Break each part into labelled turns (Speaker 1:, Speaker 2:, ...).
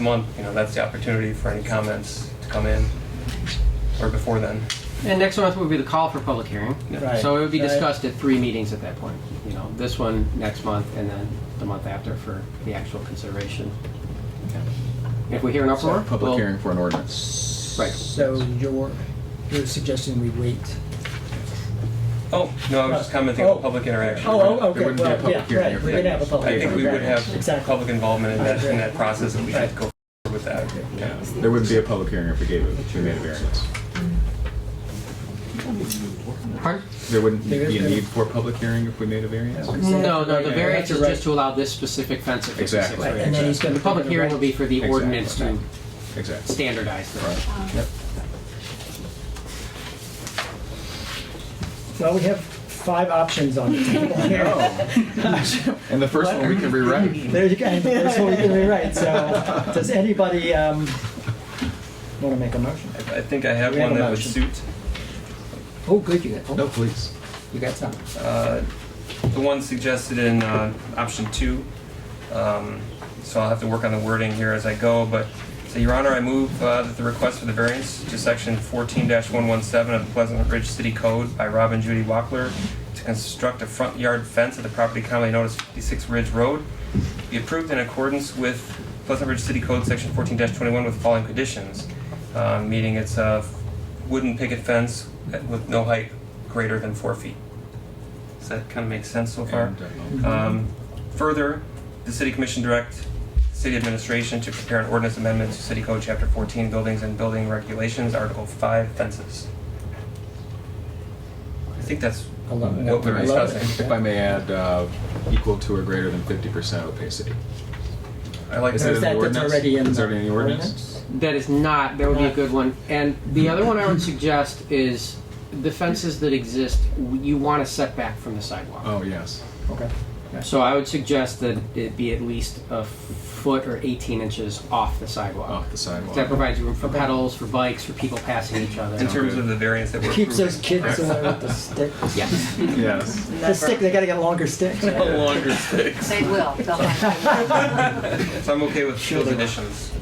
Speaker 1: month, you know, that's the opportunity for any comments to come in, or before then.
Speaker 2: And next month would be the call for public hearing.
Speaker 3: Right.
Speaker 2: So it would be
Speaker 3: Right.
Speaker 2: discussed at three meetings at that point. You know, this one next month and then the month after for the actual consideration. If we hear an uproar,
Speaker 4: Public
Speaker 2: we'll-
Speaker 4: hearing for an ordinance.
Speaker 2: Right.
Speaker 3: So you're, you're suggesting we wait?
Speaker 1: Oh, no, I was just commenting
Speaker 3: Oh.
Speaker 1: on public interaction.
Speaker 3: Oh, oh, okay,
Speaker 4: wouldn't be a
Speaker 3: well,
Speaker 4: public
Speaker 3: yeah,
Speaker 4: hearing
Speaker 3: right,
Speaker 4: if
Speaker 3: we
Speaker 4: that
Speaker 3: would have a
Speaker 4: was-
Speaker 3: public
Speaker 1: I
Speaker 3: hearing.
Speaker 1: think we would
Speaker 3: right,
Speaker 1: have
Speaker 3: Exactly.
Speaker 1: public involvement in that, in that process, and we should
Speaker 3: Right.
Speaker 1: go forward with that. Yeah.
Speaker 4: There wouldn't be a public hearing if we gave it, if we made a variance.
Speaker 2: Pardon?
Speaker 4: There wouldn't
Speaker 3: There is
Speaker 4: be a
Speaker 3: no-
Speaker 4: need for a public hearing if we made a variance?
Speaker 2: No, no, the
Speaker 3: Right,
Speaker 2: variance
Speaker 3: right,
Speaker 2: is
Speaker 3: right.
Speaker 2: just to allow this specific fence. if it's a
Speaker 4: Exactly.
Speaker 2: six-foot
Speaker 3: Right, and then he's
Speaker 2: fence.
Speaker 3: gonna
Speaker 2: The public
Speaker 3: put it
Speaker 2: hearing
Speaker 3: right.
Speaker 2: will be for the
Speaker 4: Exactly.
Speaker 2: ordinance to
Speaker 4: Exactly.
Speaker 2: standardize the
Speaker 4: Right.
Speaker 3: Well, we have five options on the table
Speaker 4: Oh.
Speaker 3: here.
Speaker 4: And the first one we can rewrite.
Speaker 3: There you go, and that's what we can rewrite, so does anybody, um, wanna make a motion?
Speaker 1: I think I have
Speaker 3: We have
Speaker 1: one
Speaker 3: a
Speaker 1: that would
Speaker 3: motion.
Speaker 1: suit,
Speaker 3: Oh, good, you got,
Speaker 4: No,
Speaker 3: oh,
Speaker 4: please.
Speaker 3: you got some.
Speaker 1: uh, the one suggested in, uh, option two. Um, So I'll have to work on the wording here as I go, but, so Your Honor, I move, uh, that the request for the variance to section fourteen one one seven of the Pleasant Ridge City Code by Rob and Judy Wackler to construct a front yard fence at the property commonly known as fifty-six Ridge Road be approved in accordance with Pleasant Ridge City Code section fourteen twenty-one with following conditions. Uh, meaning it's a wooden picket fence at- with no height greater than four feet. Does that kind of make sense so far?
Speaker 4: And, uh,
Speaker 1: Um, Further, the city commission direct city administration to prepare an ordinance amendment to city code chapter 14 buildings and building regulations, article 5 fences. I think that's
Speaker 3: I love it.
Speaker 1: what we're
Speaker 3: I love
Speaker 1: discussing.
Speaker 3: it.
Speaker 4: If I may add, uh, equal to or greater than fifty percent opacity.
Speaker 1: I like
Speaker 4: Is
Speaker 3: Or
Speaker 4: that
Speaker 3: Is
Speaker 1: that.
Speaker 4: in
Speaker 3: that,
Speaker 4: the
Speaker 3: that's
Speaker 4: ordinance?
Speaker 3: already in
Speaker 4: Is
Speaker 3: the
Speaker 4: there any ordinance?
Speaker 3: ordinance?
Speaker 2: That is not, that would be a good one. And the other one I would suggest is the fences that exist, you want a setback from the sidewalk.
Speaker 4: Oh, yes.
Speaker 3: Okay.
Speaker 2: So I would suggest that it be at least a foot or 18 inches off the sidewalk.
Speaker 4: Off the
Speaker 2: That
Speaker 4: sidewalk.
Speaker 2: provides room for pedals, for bikes, for people passing each other.
Speaker 1: In terms of the variance that we're approving.
Speaker 3: Keeps those kids away with the sticks.
Speaker 2: Yes.
Speaker 4: Yes.
Speaker 3: The stick, they gotta get longer sticks.
Speaker 1: Longer sticks.
Speaker 5: They will, they'll have to.
Speaker 1: So I'm okay with those additions.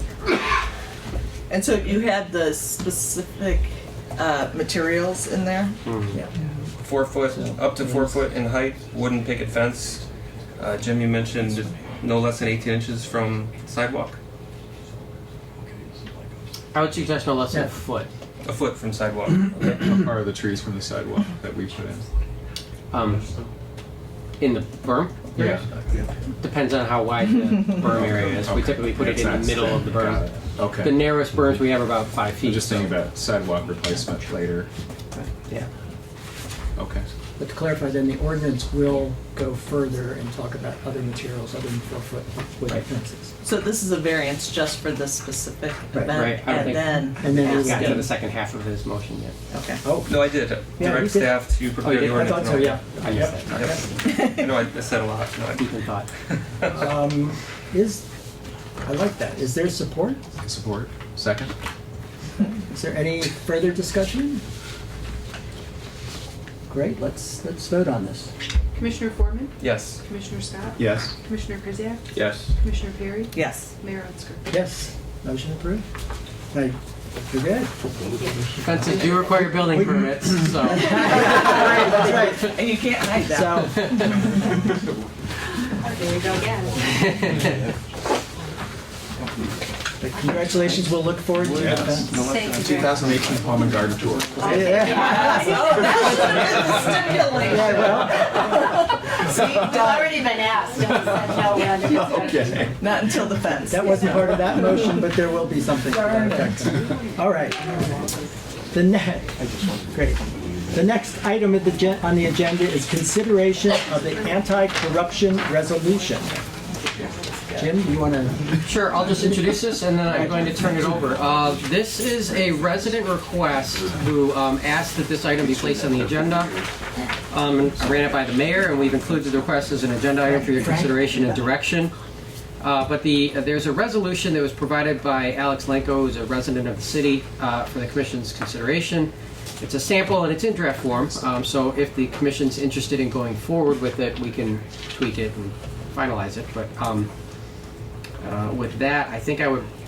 Speaker 6: And so you had the specific uh, materials in there?
Speaker 2: Hmm.
Speaker 3: Yeah.
Speaker 1: Four foot, up to four foot in height, wooden picket fence. Uh, Jim, you mentioned no less than 18 inches from sidewalk,
Speaker 2: I would suggest no less than a
Speaker 3: Yeah.
Speaker 2: foot.
Speaker 1: a foot from sidewalk.
Speaker 4: How far are the trees from the sidewalk that we put in?
Speaker 2: Um, in the berm,
Speaker 4: Yeah.
Speaker 2: depends on how wide the berm area is. We
Speaker 4: Okay.
Speaker 2: typically put it in the
Speaker 4: That's-
Speaker 2: middle of the
Speaker 4: got
Speaker 2: berm.
Speaker 4: it.
Speaker 2: The
Speaker 4: Okay.
Speaker 2: narrowest berms we have are about five feet.
Speaker 4: I'm just
Speaker 2: so-
Speaker 4: thinking about sidewalk replacement later.
Speaker 2: Yeah.
Speaker 4: Okay.
Speaker 3: But to clarify, then the ordinance will go further and talk about other materials other than four-foot wooden fences.
Speaker 6: So this is a variance just for this specific
Speaker 3: Right,
Speaker 6: event?
Speaker 2: right, I don't think-
Speaker 6: And
Speaker 3: And then
Speaker 6: then
Speaker 2: We
Speaker 3: it's
Speaker 2: haven't
Speaker 6: asking?
Speaker 2: gotten to the second half of his motion yet.
Speaker 6: Okay.
Speaker 3: Oh,
Speaker 1: No, I did.
Speaker 3: Yeah, you
Speaker 1: Direct
Speaker 3: did.
Speaker 1: staff to
Speaker 2: you
Speaker 1: prepare
Speaker 2: did?
Speaker 1: the
Speaker 2: I
Speaker 3: I
Speaker 1: ordinance.
Speaker 3: thought so, yeah.
Speaker 2: I missed that. Okay.
Speaker 1: I know, I I said a lot. No, I-
Speaker 2: Deep in thought.
Speaker 3: Um, Is, I like that. Is there support?
Speaker 4: Support. Second.
Speaker 3: Is there any further discussion? Great, let's, let's vote on this.
Speaker 7: Commissioner Foreman,
Speaker 1: Yes.
Speaker 7: Commissioner Scott,
Speaker 4: Yes.
Speaker 7: Commissioner Krzyjak,
Speaker 1: Yes.
Speaker 7: Commissioner Perry,
Speaker 6: Yes.
Speaker 7: Mayor Metzger.
Speaker 3: Yes, motion approved. Hey, you're good.
Speaker 2: Fences do require building permits, so.
Speaker 3: That's right.
Speaker 6: And you can't hide that.
Speaker 3: So,
Speaker 5: There you go again.
Speaker 3: but congratulations, we'll look forward to the
Speaker 4: Yes.
Speaker 3: event.
Speaker 5: Thank you very much.
Speaker 4: 2018 Palm and Garden Tour.
Speaker 3: Yeah,
Speaker 6: Oh, that should have been
Speaker 3: yeah,
Speaker 6: stipulated.
Speaker 3: well,
Speaker 5: It's already been asked, and I said no, we're under discussion.
Speaker 4: Okay.
Speaker 6: Not until the fence.
Speaker 3: that wasn't part of that motion, but there will be something to that effect. All right. The next, great. The next item of the gen- on the agenda is consideration of the anti-corruption resolution. Jim, you want to
Speaker 2: Sure, I'll just introduce this and then I'm going to turn it over. Uh, This is a resident request who um, asked that this item be placed on the agenda. Um, and I Ran it by the mayor and we've included the request as an agenda item for your consideration and direction. Uh, But the, there's a resolution that was provided by Alex Lenko, who's a resident of the city, uh, for the commission's consideration. It's a sample and it's in draft form, um, so if the commission's interested in going forward with it, we can tweak it and finalize it. But um, uh, with that, I think I would